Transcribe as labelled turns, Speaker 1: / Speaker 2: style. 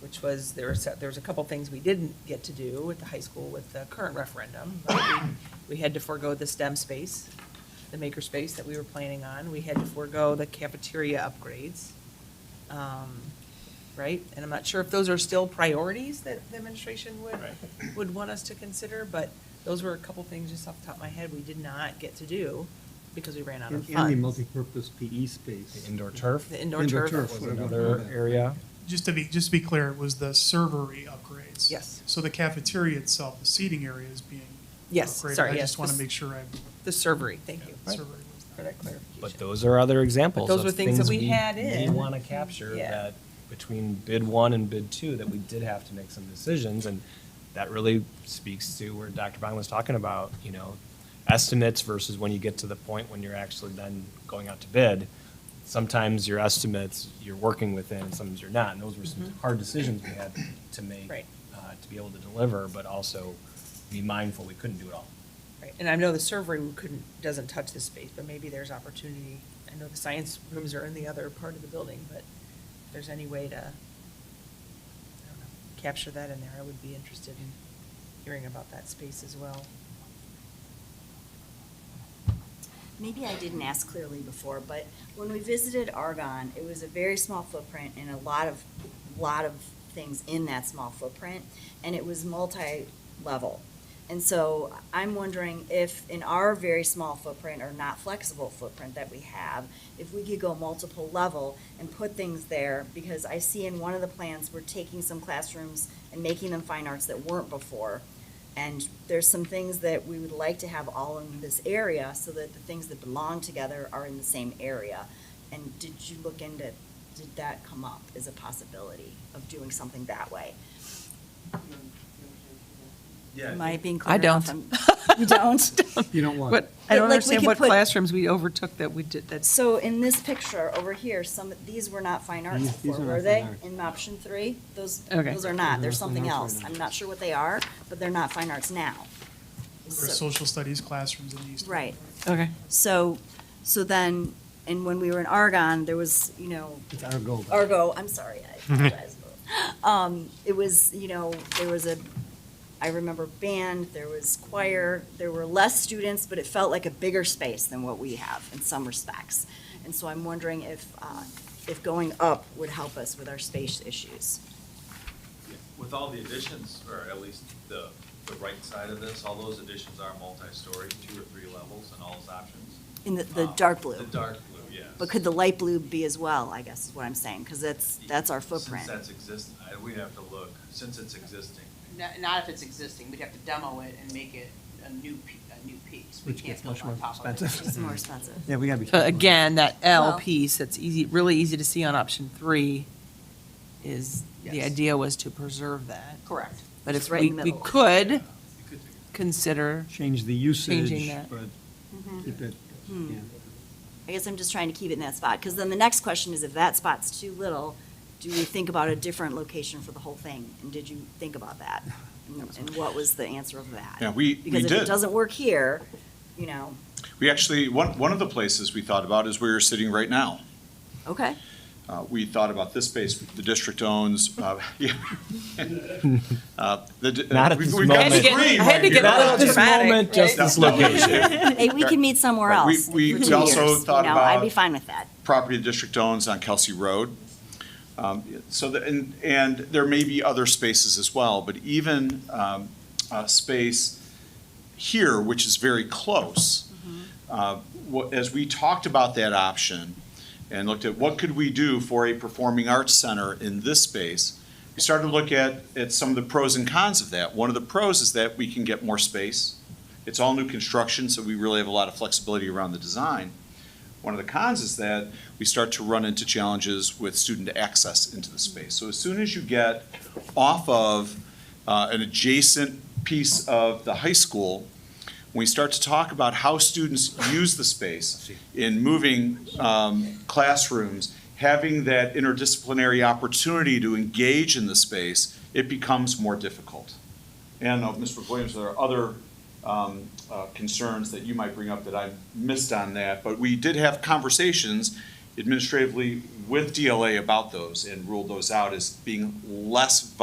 Speaker 1: which was, there were, set- there was a couple things we didn't get to do at the high school with the current referendum. We had to forego the STEM space, the maker space that we were planning on. We had to forego the cafeteria upgrades. Um, Right? And I'm not sure if those are still priorities that the administration would,
Speaker 2: Right.
Speaker 1: would want us to consider, but those were a couple things just off the top of my head we did not get to do because we ran out of
Speaker 3: And
Speaker 1: funds.
Speaker 3: and the multipurpose PE space.
Speaker 2: The indoor turf
Speaker 1: The indoor
Speaker 3: Indoor
Speaker 1: turf.
Speaker 3: turf.
Speaker 2: was another area.
Speaker 4: Just to be, just to be clear, it was the servery upgrades.
Speaker 1: Yes.
Speaker 4: So the cafeteria itself, the seating area is being
Speaker 1: Yes,
Speaker 4: upgraded.
Speaker 1: sorry,
Speaker 4: I
Speaker 1: yes,
Speaker 4: just want
Speaker 1: this-
Speaker 4: to make sure I.
Speaker 1: The servery, thank you
Speaker 4: yeah, servery was
Speaker 1: for that
Speaker 2: But
Speaker 1: clarification.
Speaker 2: those are other examples
Speaker 1: But those
Speaker 2: of
Speaker 1: were things that we had in.
Speaker 2: We want to capture
Speaker 1: Yeah.
Speaker 2: that between bid one and bid two, that we did have to make some decisions. And that really speaks to where Dr. Bong was talking about, you know, estimates versus when you get to the point when you're actually then going out to bid. Sometimes your estimates, you're working within, and sometimes you're not. And those were some hard decisions we had to make.
Speaker 1: Mm-hmm. Right.
Speaker 2: uh, To be able to deliver, but also be mindful, we couldn't do it all.
Speaker 1: Right, And I know the servery we couldn't, doesn't touch this space, but maybe there's opportunity. I know the science rooms are in the other part of the building, but if there's any way to, I don't know, capture that in there, I would be interested in hearing about that space as well.
Speaker 5: Maybe I didn't ask clearly before, but when we visited Argonne, it was a very small footprint and a lot of, lot of things in that small footprint, and it was multi-level. And so I'm wondering if in our very small footprint or not flexible footprint that we have, if we could go multiple level and put things there, because I see in one of the plans, we're taking some classrooms and making them fine arts that weren't before. And there's some things that we would like to have all in this area so that the things that belong together are in the same area. And did you look into, did that come up as a possibility of doing something that way? Am I being clear
Speaker 1: I
Speaker 5: enough?
Speaker 1: don't.
Speaker 5: I'm- You don't?
Speaker 3: You don't want.
Speaker 1: But I don't
Speaker 5: Like, we
Speaker 1: understand
Speaker 5: could
Speaker 1: what
Speaker 5: put-
Speaker 1: classrooms we overtook that we did, that's,
Speaker 5: So in this picture over here, some, these were not fine arts
Speaker 3: These- these
Speaker 5: before,
Speaker 3: are not
Speaker 5: were
Speaker 3: fine
Speaker 5: they?
Speaker 3: arts.
Speaker 5: In option three? Those,
Speaker 1: Okay.
Speaker 5: those are
Speaker 3: These are not
Speaker 5: not, they're
Speaker 3: fine
Speaker 5: something
Speaker 3: arts
Speaker 5: else.
Speaker 3: right now.
Speaker 5: I'm not sure what they are, but they're not fine arts now.
Speaker 4: There were
Speaker 5: So-
Speaker 4: social studies classrooms in these.
Speaker 5: Right.
Speaker 1: okay.
Speaker 5: So, so then, and when we were in Argonne, there was, you know,
Speaker 3: It's our goal.
Speaker 5: Argo, I'm sorry, I apologize. Um, it was, you know, there was a, I remember band, there was choir, there were less students, but it felt like a bigger space than what we have in some respects. And so I'm wondering if, uh, if going up would help us with our space issues.
Speaker 6: With all the additions, or at least the, the right side of this, all those additions are multi-story, two or three levels in all those options.
Speaker 5: In the, the
Speaker 6: Um,
Speaker 5: dark blue.
Speaker 6: The dark blue, yes.
Speaker 5: But could the light blue be as well, I guess is what I'm saying, because that's, that's our
Speaker 6: Since
Speaker 5: footprint.
Speaker 6: that's exist, I, we have to look, since it's existing.
Speaker 7: Not, not if it's existing, we'd have to demo it and make it a new, pe- a new piece. We
Speaker 3: Which
Speaker 7: can't
Speaker 3: gets much
Speaker 7: build on
Speaker 3: more
Speaker 7: top of it.
Speaker 3: expensive.
Speaker 5: It's more expensive.
Speaker 3: Yeah, we gotta be.
Speaker 1: But Uh, again, that L
Speaker 5: Well-
Speaker 1: piece, that's easy, really easy to see on option three, is, the
Speaker 7: Yes.
Speaker 1: idea was to preserve that.
Speaker 7: Correct.
Speaker 1: But
Speaker 5: It's
Speaker 1: if
Speaker 5: right
Speaker 1: we,
Speaker 5: in the
Speaker 1: we
Speaker 5: middle.
Speaker 1: could
Speaker 6: Yeah, you could figure it
Speaker 1: consider,
Speaker 3: Change the usage,
Speaker 1: that.
Speaker 3: but keep it,
Speaker 5: Hmm.
Speaker 3: yeah.
Speaker 5: I guess I'm just trying to keep it in that spot, because then the next question is if that spot's too little, do we think about a different location for the whole thing? And did you think about that? And- And what was the answer of that?
Speaker 8: Yeah, we- we
Speaker 5: Because if it
Speaker 8: did.
Speaker 5: doesn't work here, you know,
Speaker 8: We actually, one, one of the places we thought about is where you're sitting right now.
Speaker 5: okay,
Speaker 8: Uh, We thought about this space the district owns. uh, yeah. Uh, the di-
Speaker 2: Not at
Speaker 8: we've-
Speaker 2: this
Speaker 8: we've got
Speaker 2: moment. I had to
Speaker 1: get-
Speaker 8: three
Speaker 1: I had to
Speaker 8: right
Speaker 1: get
Speaker 8: here.
Speaker 1: out of
Speaker 2: Not at this
Speaker 1: dramatic,
Speaker 2: moment, just
Speaker 8: right?
Speaker 2: this
Speaker 8: No, no.
Speaker 2: location.
Speaker 5: hey, we can meet somewhere
Speaker 8: Right, we-
Speaker 5: else.
Speaker 8: we-
Speaker 5: in
Speaker 8: we
Speaker 5: two
Speaker 8: also
Speaker 5: years, you
Speaker 8: thought
Speaker 5: know, I'd be
Speaker 8: about-
Speaker 5: fine with that.
Speaker 8: Property the district owns on Kelsey Road. Um, So, the- and, and there may be other spaces as well, but even um, a space here, which is very close, uh, wha- as we talked about that option and looked at what could we do for a performing arts center in this space, we started to look at, at some of the pros and cons of that. One of the pros is that we can get more space. It's all new construction, so we really have a lot of flexibility around the design. One of the cons is that we start to run into challenges with student access into the space. So as soon as you get off of uh, an adjacent piece of the high school, we start to talk about how students use the space in moving um, classrooms, having that interdisciplinary opportunity to engage in the space, it becomes more difficult. And uh, Mr. Williams, there are other um, uh, concerns that you might bring up that I missed on that, but we did have conversations administratively with DLA about those and ruled those out as being less